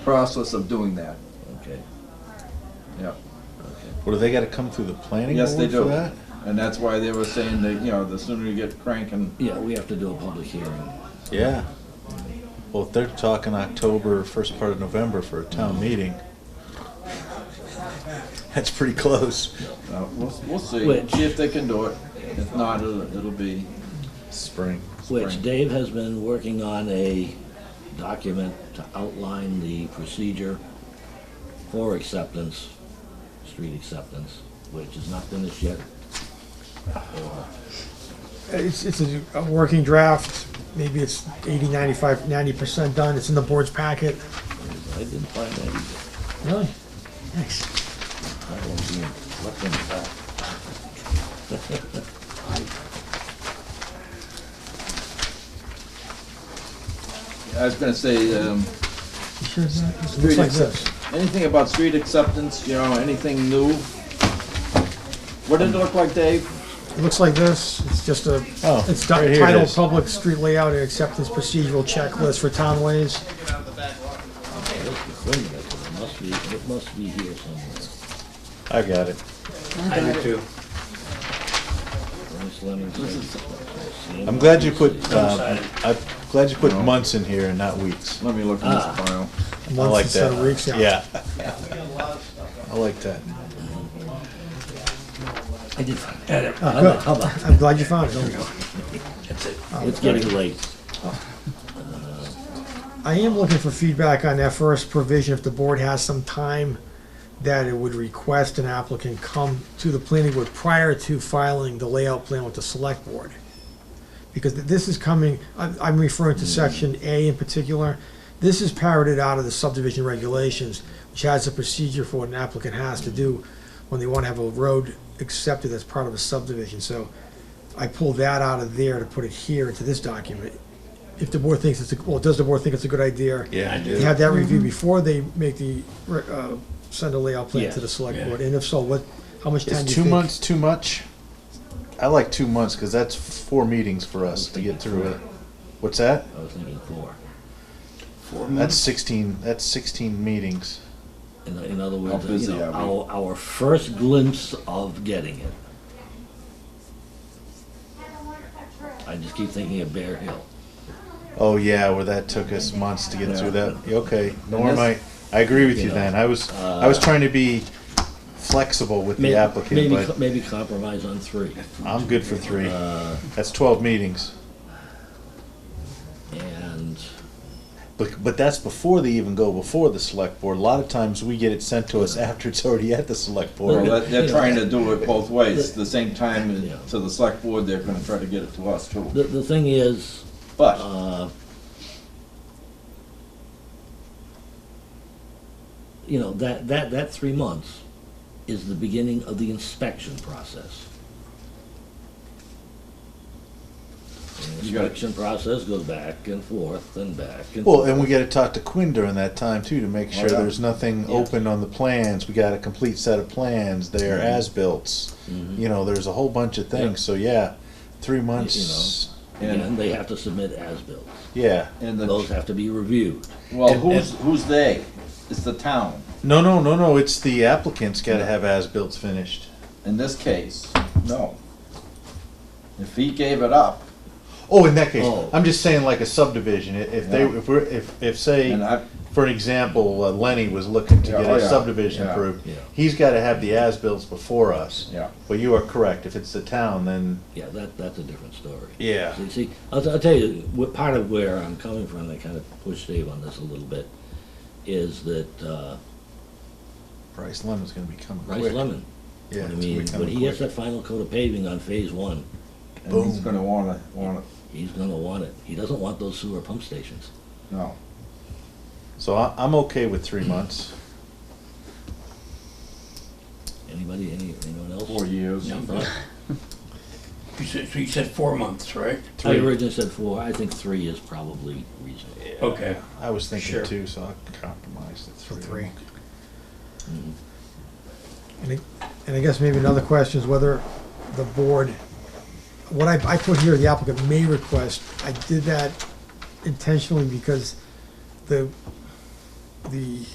process of doing that, Okay, yeah. okay. Well, do they gotta come through the planning Yes, they board for do. that? And that's why they were saying that, you know, the sooner you get cranking, Yeah, we have to do a public hearing. Yeah. Well, if they're talking October, first part of November for a town meeting, that's pretty close. uh, we'll, we'll see. Which- See if they can do it. If not, it'll, it'll be Spring. Which Spring. Dave has been working on a document to outline the procedure for acceptance, street acceptance, which is not finished yet. Or- It's, it's a, a working draft, maybe it's 80, 95, 90% done, it's in the board's packet. I didn't find that either. Really? Thanks. That one being left in the back. I was gonna say, um, You sure it's not? It Street looks like accept- this. Anything about street acceptance, you know, anything new? What did it look like, Dave? It looks like this, it's just a, Oh, it's right here it titled is. Public Street Layout and Acceptance Procedural Checklist for Townways. Where's the thing that- It must be, it must be here somewhere. I got it. Dennis Lemon said- Sam- I'm glad you put, um, I'm glad you put months in here and not weeks. Let me look in this Ah. file. I like Months that. instead of weeks, yeah. I like that. I did find it. How Oh, good. about- how about- I'm glad you found it. It's getting late. I am looking for feedback on that first provision, if the board has some time, that it would request an applicant come to the planning board prior to filing the layout plan with the select board. Because th- this is coming, I'm, I'm referring to section A in particular, this is parroted out of the subdivision regulations, which has a procedure for what an applicant has to do when they wanna have a road accepted as part of a subdivision, so I pulled that out of there to put it here into this document. If the board thinks it's, a well, does the board think it's a good idea? Yeah, I do. to have that review before they make the, re- uh, send a layout plan to the select board, and if so, what, how much time do you Is think? two months too much? I like two months, cause that's four meetings for us to get through it. What's that? I was thinking four. That's sixteen, that's sixteen meetings. In, in other How words, uh, you busy know, are we? our, our first glimpse of getting it. I just keep thinking of Bear Hill. Oh yeah, where that took us months to get Yeah. through that. Okay, Norm, I, this- I agree with you, you know, then. I was I was trying to be flexible with May- the applicant, maybe, but co- uh, maybe compromise on three. I'm good for three. that's twelve meetings, And but but that's before they even go before the select board. A lot of times we get it sent to us after it's already at the select Well, board. that- they're You know. trying to do it both ways, the same time Yeah. to the select board, they're gonna try to get it to us too. the, the thing is, But, uh, you know, that, that, that three months is the beginning of the inspection process. And the You got it. Inspection process goes back and forth and back and. Well, and we got to talk to Quinn during that time too to make sure yeah. there's nothing Oh, Yeah. open on the plans. We got a complete set of plans. They are as built. Mm-hmm. You know, there's a whole bunch of things. So yeah, three months. And and, they have to submit as-bills. Yeah. and Those the, have to be reviewed. well, and- who's, who's they? It's the town, No, no, no, no. It's the applicant's got to have as-built finished. in this case, no. If he gave it up, Oh, in that case, Oh. I'm just saying like a subdivision. I- If they, Yeah. if we're, if, if say, and I, for an example, uh, Lenny was looking to Yeah, get oh, a yeah, subdivision yeah. approved, Yeah. he's got to have the as-bills before us. Yeah. But you are correct. If it's the town, then Yeah, that, that's a different story. yeah, See, see, I'll, I'll tell you, what, part of where I'm coming from, I kind of pushed Dave on this a little bit, is that, uh, Bryce Lemon's going to be coming Bryce quick. Lemon, I Yeah, it's gonna be mean, when coming he gets quick. that final coat of paving on phase one, and he's Boom. gonna wanna, wanna, he's gonna want it. He doesn't want those sewer pump stations. no. So I, I'm okay with three months. Anybody, any, anyone else? Four years. Some thought? You said, so you said four months, right? I Three. originally said four, I think three is probably reasonable. Okay. I was thinking Sure. two, so I compromised at three. Three. Mm-hmm. And I- and I guess maybe another question is whether the board, what I, I put here, the applicant may request, I did that intentionally because the, the